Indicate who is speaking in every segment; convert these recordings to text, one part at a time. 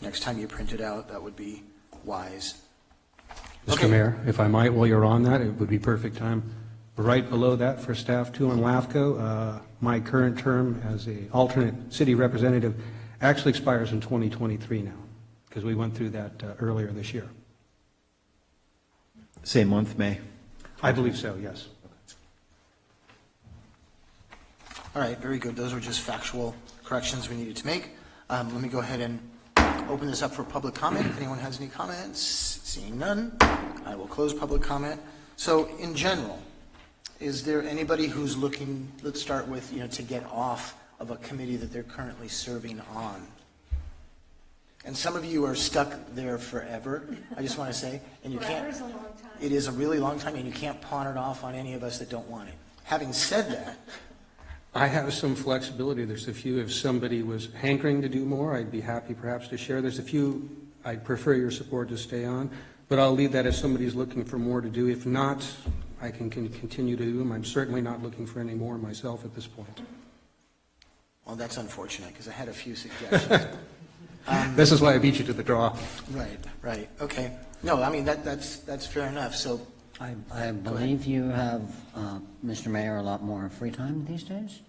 Speaker 1: next time you print it out, that would be wise. Okay.
Speaker 2: Mr. Mayor, if I might, while you're on that, it would be perfect time. Right below that for staff two on LAFCO, uh, my current term as a alternate city representative actually expires in 2023 now, because we went through that uh, earlier this year.
Speaker 3: Same month, May.
Speaker 2: I believe so, yes.
Speaker 1: All right, very good. Those were just factual corrections we needed to make. Um, Let me go ahead and open this up for public comment. If anyone has any comments, seeing none, I will close public comment. So in general, is there anybody who's looking, let's start with, you know, to get off of a committee that they're currently serving on? And some of you are stuck there forever, I just want to say, and you can't.
Speaker 4: Forever's a long time.
Speaker 1: It is a really long time, and you can't pawn it off on any of us that don't want it. Having said that,
Speaker 2: I have some flexibility. There's a few, if somebody was hankering to do more, I'd be happy perhaps to share. There's a few I'd prefer your support to stay on, but I'll leave that if somebody's looking for more to do. If not, I can can continue to do them. I'm certainly not looking for any more myself at this point.
Speaker 1: Well, that's unfortunate, because I had a few suggestions.
Speaker 2: This is why I beat you to the draw.
Speaker 1: Right, right, okay. No, I mean, that, that's, that's fair enough, so,
Speaker 5: I, I believe you have, uh, Mr. Mayor, a lot more free time these days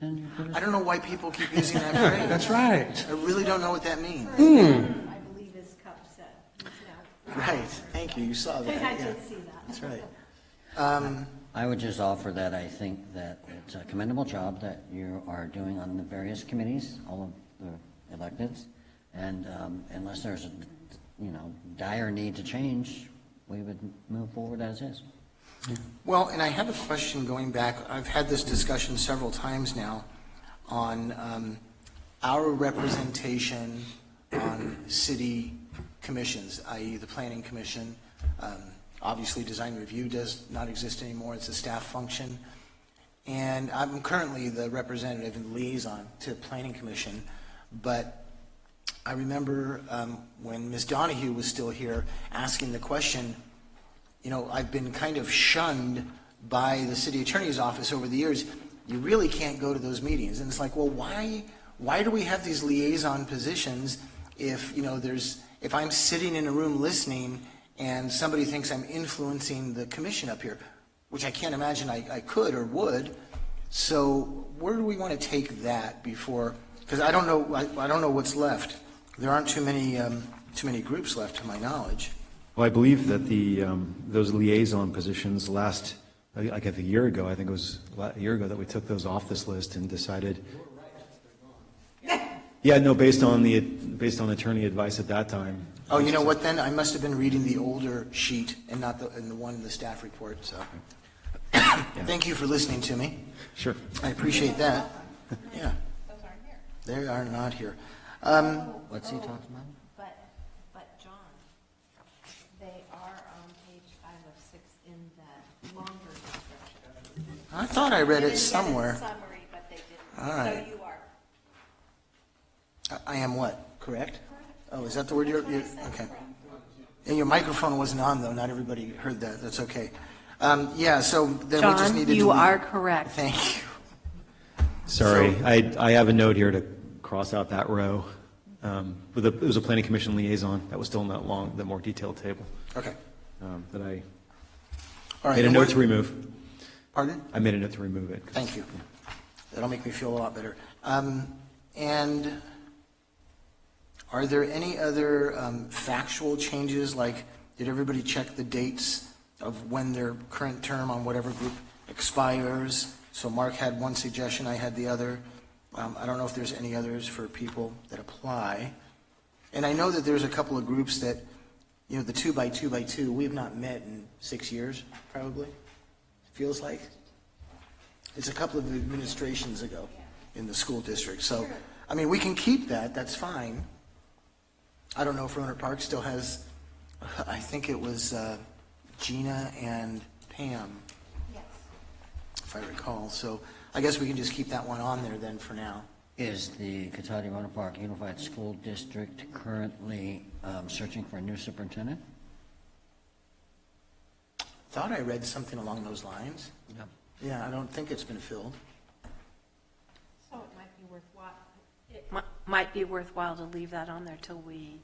Speaker 5: than you could
Speaker 1: I don't know why people keep using that phrase.
Speaker 2: That's right.
Speaker 1: I really don't know what that means.
Speaker 4: I believe is cup set. Yeah.
Speaker 1: Right, thank you, you saw that,
Speaker 4: I
Speaker 1: yeah,
Speaker 4: did see that.
Speaker 1: that's right.
Speaker 5: I would just offer that I think that it's a commendable job that you are doing on the various committees, all of the electives. And um, unless there's, a you know, dire need to change, we would move forward as is.
Speaker 1: Well, and I have a question going back, I've had this discussion several times now on um, our representation on city commissions, i.e. the planning commission. Um, Obviously, design review does not exist anymore, it's a staff function. And I'm currently the representative and liaison to planning commission, but I remember um, when Ms. Donahue was still here, asking the question, you know, I've been kind of shunned by the city attorney's office over the years. You really can't go to those meetings. And it's like, well, why, why do we have these liaison positions if, you know, there's, if I'm sitting in a room listening and somebody thinks I'm influencing the commission up here, which I can't imagine I, I could or would. So where do we want to take that before, because I don't know, I, I don't know what's left. There aren't too many, um, too many groups left to my knowledge.
Speaker 3: Well, I believe that the, um, those liaison positions last, I I guess a year ago, I think it was la- a year ago that we took those off this list and decided. Yeah, no, based on the, based on attorney advice at that time.
Speaker 1: Oh, you know what then? I must have been reading the older sheet and not the, and the one in the staff report, so. Thank you for listening to me.
Speaker 3: Sure.
Speaker 1: I appreciate that. Yeah. They are not here. Um,
Speaker 5: What's he talking about?
Speaker 6: Oh, But, but John, they are on page five of six in the longer description.
Speaker 1: I thought I read
Speaker 6: They
Speaker 1: it
Speaker 6: didn't get a
Speaker 1: somewhere.
Speaker 6: Summary, but they didn't.
Speaker 1: All right.
Speaker 6: So you are.
Speaker 1: I- I am what, correct? Oh, is that the word you're, you're, okay. And your microphone wasn't on though, not everybody heard that, that's okay. Um, yeah, so then we just
Speaker 7: John,
Speaker 1: need to.
Speaker 7: you
Speaker 1: delete-
Speaker 7: are correct.
Speaker 1: Thank you.
Speaker 3: Sorry,
Speaker 1: So-
Speaker 3: I, I have a note here to cross out that row. Um, With the, it was a planning commission liaison, that was still in that long, the more detailed table
Speaker 1: Okay.
Speaker 3: um, that I
Speaker 1: All right.
Speaker 3: made a
Speaker 1: and
Speaker 3: note
Speaker 1: what-
Speaker 3: to remove.
Speaker 1: Pardon?
Speaker 3: I made a note to remove it.
Speaker 1: Thank you. That'll make me feel a lot better. Um, And are there any other um, factual changes, like, did everybody check the dates of when their current term on whatever group expires? So Mark had one suggestion, I had the other. Um, I don't know if there's any others for people that apply. And I know that there's a couple of groups that, you know, the two by two by two, we have not met in six years, probably, feels like. It's a couple of administrations ago in the school district, so, I mean, we can keep that, that's fine. I don't know if Rohnert Park still has, I think it was uh, Gina and Pam,
Speaker 6: Yes.
Speaker 1: if I recall, so I guess we can just keep that one on there then for now.
Speaker 5: Is the Cotati Roanoke Park Unified School District currently um, searching for a new superintendent?
Speaker 1: Thought I read something along those lines.
Speaker 5: No.
Speaker 1: Yeah, I don't think it's been filled.
Speaker 6: So it might be worthwhile. it-
Speaker 7: Mi-
Speaker 6: might be worthwhile to leave that on there till we